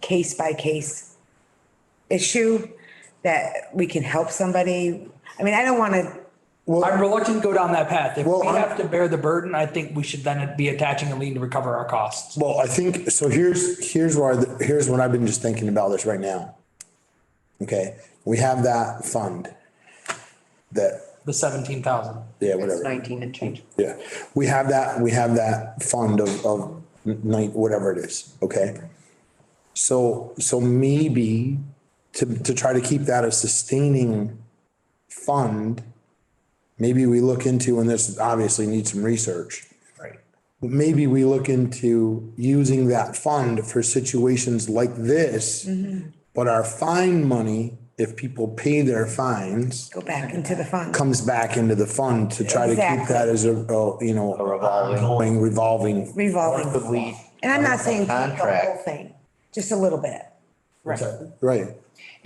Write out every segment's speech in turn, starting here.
case by case issue that we can help somebody. I mean, I don't want to, I'm reluctant to go down that path. If Well, we I'm- have to bear the burden, I think we should then be attaching a lien to recover our costs. Well, I think, so here's, here's where, the- here's what I've been just thinking about this right now. Okay, we have that fund that, The seventeen thousand. yeah, It's whatever. nineteen and change. Yeah, we have that, we have that fund of, of night, whatever it is, okay? So, so maybe to, to try to keep that a sustaining fund, maybe we look into, and this obviously needs some research. Right. But maybe we look into using that fund for situations like this. But our fine money, if people pay their fines, go back into the fund. comes back into the fund to try to keep Exactly. that as a, a, you know, revolving. ongoing revolving. Revolving. Probably And I'm not saying take the whole Contract. thing, just a little bit. Right. Right.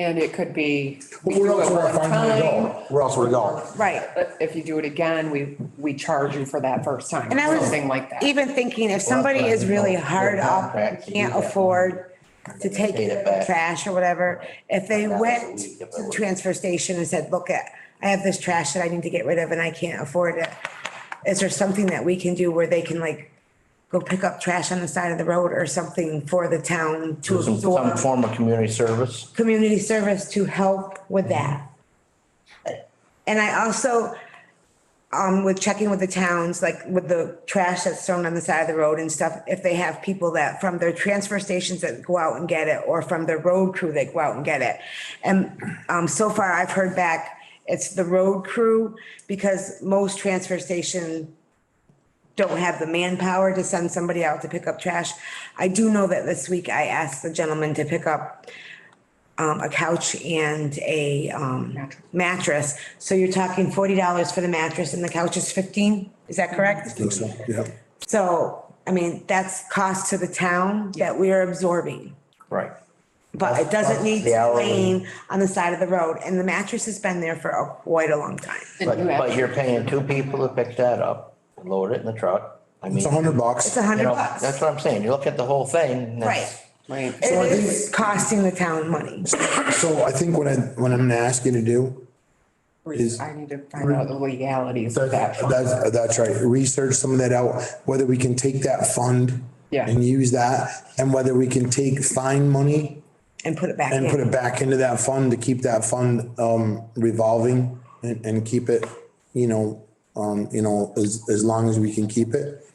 And it could be. we Where do else it would our fine one money time, go? Where else would it go? Right. But if you do it again, we, we charge you for that first time, And I was something like that. even thinking if somebody is really hard up, and can't afford to take Pay it back. trash or whatever, if they went to the transfer station and said, look, I have this trash that I need to get rid of and I can't afford it. Is there something that we can do where they can like go pick up trash on the side of the road or something for the town to Some, some absorb? form of community service. Community service to help with that. And I also, um, with checking with the towns, like with the trash that's thrown on the side of the road and stuff, if they have people that from their transfer stations that go out and get it, or from their road crew that go out and get it. And, um, so far I've heard back, it's the road crew, because most transfer station don't have the manpower to send somebody out to pick up trash. I do know that this week I asked the gentleman to pick up, um, a couch and a, um, Mattress. mattress. So you're talking forty dollars for the mattress and the couch is fifteen, is that correct? Think so, yeah. So, I mean, that's cost to the town that we are absorbing. Right. But it doesn't need The to hourly. rain on the side of the road and the mattress has been there for a- quite a long time. And But, you but have- you're paying two people to pick that up, load it in the truck. I mean, It's a hundred bucks. It's a you hundred know, bucks. that's what I'm saying. You look at the whole thing. and that's- Right. Right. It is costing the town money. So I think what I, what I'm gonna ask you to do, Is- I need to find out the legalities of that. that's, that's right, research some of that out, whether we can take that fund Yeah. and use that, and whether we can take fine money And put it back and put in. it back into that fund to keep that fund, um, revolving and, and keep it, you know, um, you know, as, as long as we can keep it.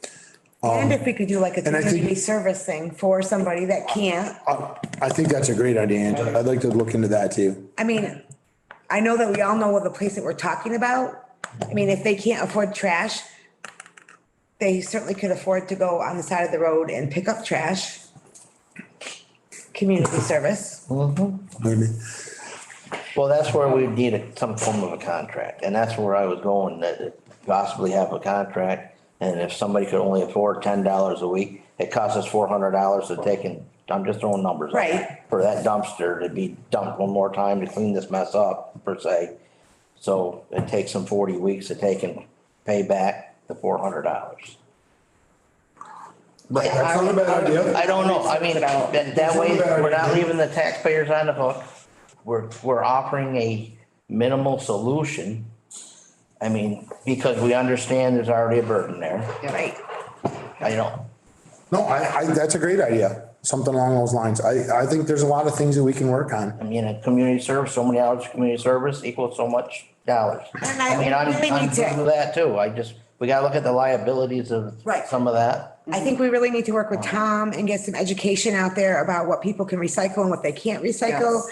And if we could do like a I think- community service thing for somebody that can't, I, I think that's a great idea, Angela. I'd like to look into that too. I mean, I know that we all know what the place that we're talking about. I mean, if they can't afford trash, they certainly could afford to go on the side of the road and pick up trash. Community service. Maybe. Well, that's where we need a- some form of a contract, and that's where I was going, that possibly have a contract. And if somebody could only afford ten dollars a week, it costs us four hundred dollars to take and, I'm just throwing numbers. out there, Right. For that dumpster to be dumped one more time to clean this mess up, per se. So it takes them forty weeks to take and pay back the four hundred dollars. Right, that's not a bad idea. I don't know, I mean, that, that way, we're not leaving the taxpayers on the hook. We're, we're offering a minimal solution. I mean, because we understand there's already a burden there. Right. I don't, No, I, I, that's a great idea. Something along those lines. I, I think there's a lot of things that we can work on. I mean, a community service, so many hours of community service equals so much dollars. And I I mean, I'm, really I'm need to- good with that too. I just, we gotta look at the liabilities of Right. some of that. I think we really need to work with Tom and get some education out there about what people can recycle and what they can't recycle.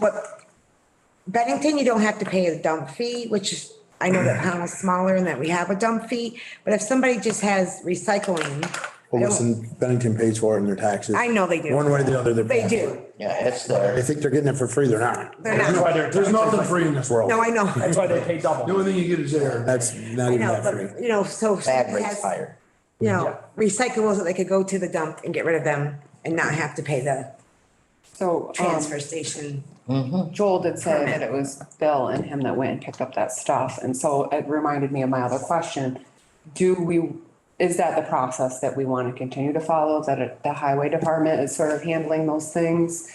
What, Bennington, you don't have to pay a dump fee, which is, I know that Pownell's smaller and that we have a dump fee, but if somebody just has recycling, I Well, don't- listen, Bennington pays for it in their taxes. I know they do. One way or the other, they're. they paying for it. do. Yeah, it's there. They think they're getting it for free. They're not. They're not. There's nothing free in this world. No, I know. That's why they pay double. only thing you get is air. That's not I even know, that free. but, you know, so. Bag somebody rate's has, higher. You know, recyclables that they could go to the dump and get rid of them and not have to pay the So, um, transfer station. Joel did say that it was Bill and him that went and picked up that stuff. And so it reminded me of my other question. Do we is that the process that we want to continue to follow, that it- the highway department is sort of handling those things?